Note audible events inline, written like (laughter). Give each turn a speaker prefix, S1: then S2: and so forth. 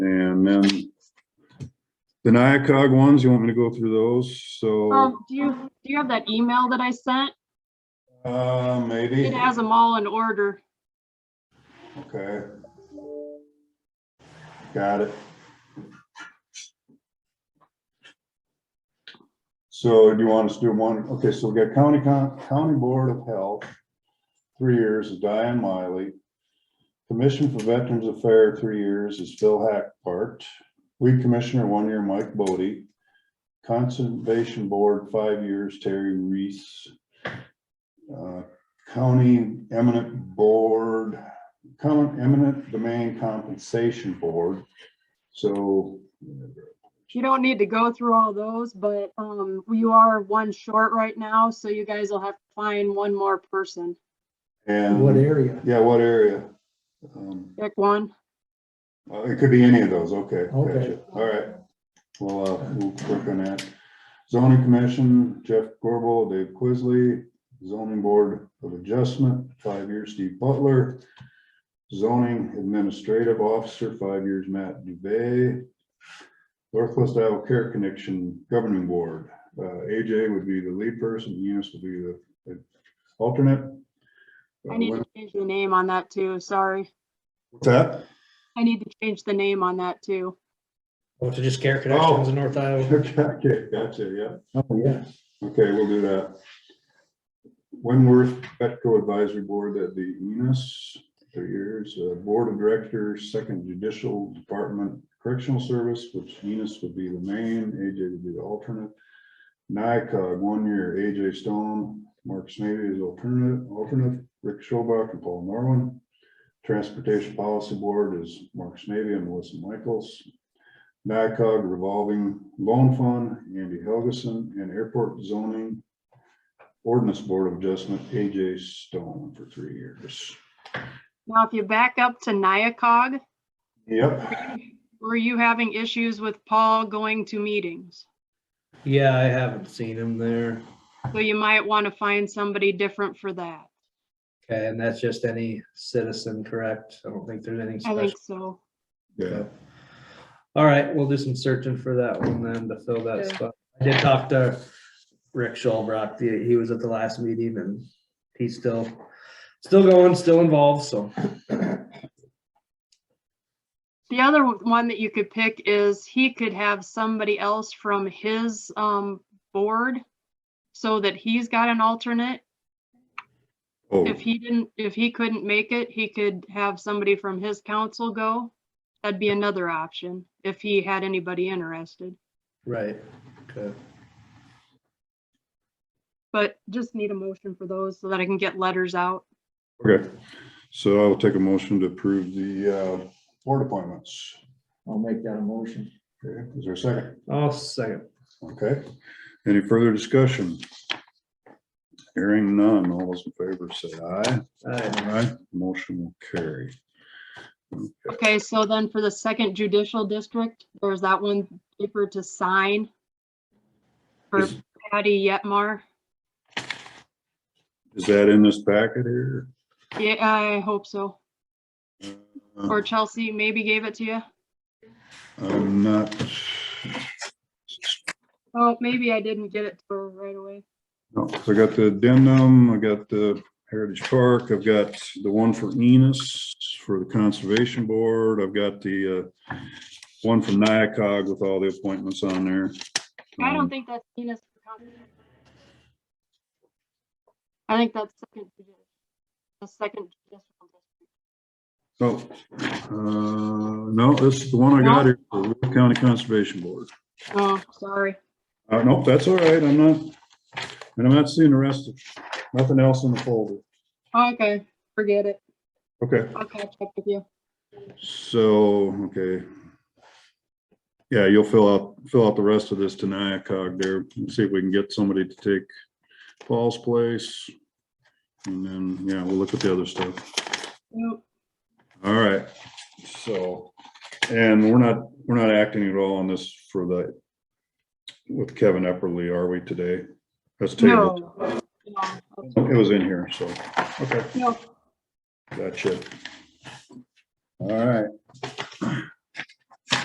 S1: And then the NIACOG ones, you want me to go through those? So,
S2: Um, do you, do you have that email that I sent?
S1: uh, maybe.
S2: It has them all in order.
S1: Okay. Got it. So do you want us to do one? Okay, so we got county, Con- county board of health, three years is Diane Miley. Commission for Veterans Affairs, three years is Phil Hackpart. Weed Commissioner, one year Mike Bodie. Conservation Board, five years Terry Reese. Uh, County Eminent Board, Common Eminent Domain Compensation Board. So,
S2: You don't need to go through all those, but, um, you are one short right now, so you guys will have to find one more person.
S3: What
S4: Mm-hmm.
S1: and,
S3: area?
S1: yeah, what area? Um,
S2: Pick one.
S1: uh, It could be any of those, okay.
S3: Okay.
S1: gotcha. All right. Well, uh, we'll work on that. Zoning Commission, Jeff Gorbel, Dave Quisley, Zoning Board of Adjustment, five years, Steve Butler. Zoning Administrative Officer, five years, Matt Dubay. Northwest Iowa Care Connection Governing Board, uh, AJ would be the lead person, Eunice would be the- the alternate. Uh,
S2: I need to change the name on that too, sorry.
S1: What's that? (laughs)
S2: I need to change the name on that too.
S4: Oh, so just care connections in North Iowa.
S1: Okay, gotcha, yeah.
S3: Oh, yeah.
S1: Okay, we'll do that. Winworth Petco Advisory Board, that'd be Enos, three years, uh, Board of Directors, Second Judicial Department Correctional Service, which Enos would be the main, AJ would be the alternate. NICOG, one year, AJ Stone, Mark Snavy is alternate, alternate, Rick Schobach and Paul Norman. Transportation Policy Board is Mark Snavy and Melissa Michaels. NICOG revolving loan fund, Andy Helgeson, and airport zoning ordinance board of adjustment, AJ Stone for three years.
S2: Now, if you back up to Nyakog,
S1: Yep,
S2: were you having issues with Paul going to meetings?
S4: Yeah, I haven't seen him there.
S2: So you might want to find somebody different for that.
S4: Okay, and that's just any citizen, correct? I don't think there's anything
S2: I
S4: special.
S2: think so.
S1: yeah,
S4: All right, we'll do some searching for that one then to fill that
S2: Yeah.
S4: spot. I did talk to Rick Schulbrock. He he was at the last meeting and he's still, still going, still involved, so.
S2: The other one that you could pick is he could have somebody else from his um board so that he's got an alternate.
S1: oh,
S2: If he didn't, if he couldn't make it, he could have somebody from his council go. That'd be another option if he had anybody interested,
S4: Right. Okay.
S2: but just need a motion for those so that I can get letters out.
S1: okay. So I'll take a motion to approve the uh, board appointments.
S3: I'll make that a motion.
S1: Okay, is there a second?
S4: I'll second.
S1: Okay, any further discussion? Hearing none, all those in favor say aye.
S4: All right.
S1: Aye. Motion will carry.
S2: Okay, so then for the second judicial district, there's that one paper to sign for
S1: Is-
S2: Patty Yetmar.
S1: Is that in this packet here?
S2: Yeah, I hope so.
S1: Uh,
S2: Or Chelsea maybe gave it to you.
S1: I'm not,
S2: Oh, maybe I didn't get it to her right away.
S1: no, 'cause Oh, I got the addendum, I got the Heritage Park, I've got the one for Enos for the Conservation Board, I've got the uh, one from NIACOG with all the appointments on there.
S2: I don't
S1: Um,
S2: think that's Enos. I think that's second, judi- the second. judicial district.
S1: So, Oh, uh, no, this is the one I got here, the Will County Conservation Board.
S2: Oh, sorry.
S1: Uh, nope, that's all right, I'm not, and I'm not seeing the rest of, nothing else in the folder.
S2: Oh, Okay, forget it.
S1: Okay.
S2: I'll catch up with you.
S1: So, okay. Yeah, you'll fill out, fill out the rest of this to NIACOG there, and see if we can get somebody to take Paul's place. And then, yeah, we'll look at the other stuff.
S2: Nope.
S1: All right, so, and we're not, we're not acting at all on this for the, with Kevin Epperly, are we today? That's tabled.
S2: No. No.
S1: It was in here, so, okay.
S2: No.
S1: Gotcha. All right,